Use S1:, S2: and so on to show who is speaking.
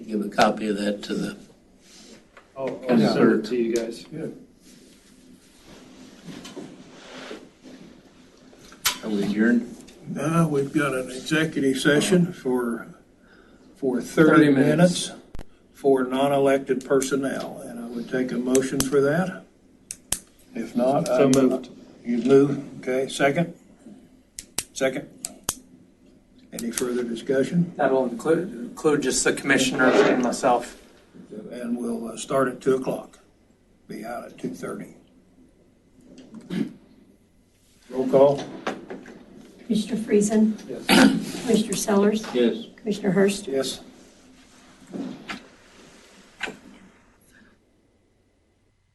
S1: give a copy of that to the,
S2: I'll, I'll send it Oh, to you guys.
S1: are we adjourned?
S3: Now, Uh, we've got an executive session for, for
S2: 30
S3: 30
S2: minutes.
S3: minutes for non-elected personnel, and I would take a motion for that. If not.
S2: So
S3: I'm-
S2: moved.
S3: You've moved, okay, second? Second? Any further discussion?
S4: That'll include, include just the commissioners and myself.
S3: And we'll uh, start at 2 o'clock, be out at 2:30. Roll call?
S5: Commissioner Friesen?
S2: Yes.
S5: Commissioner Sellers?
S1: Yes.
S5: Commissioner Hurst?
S3: Yes.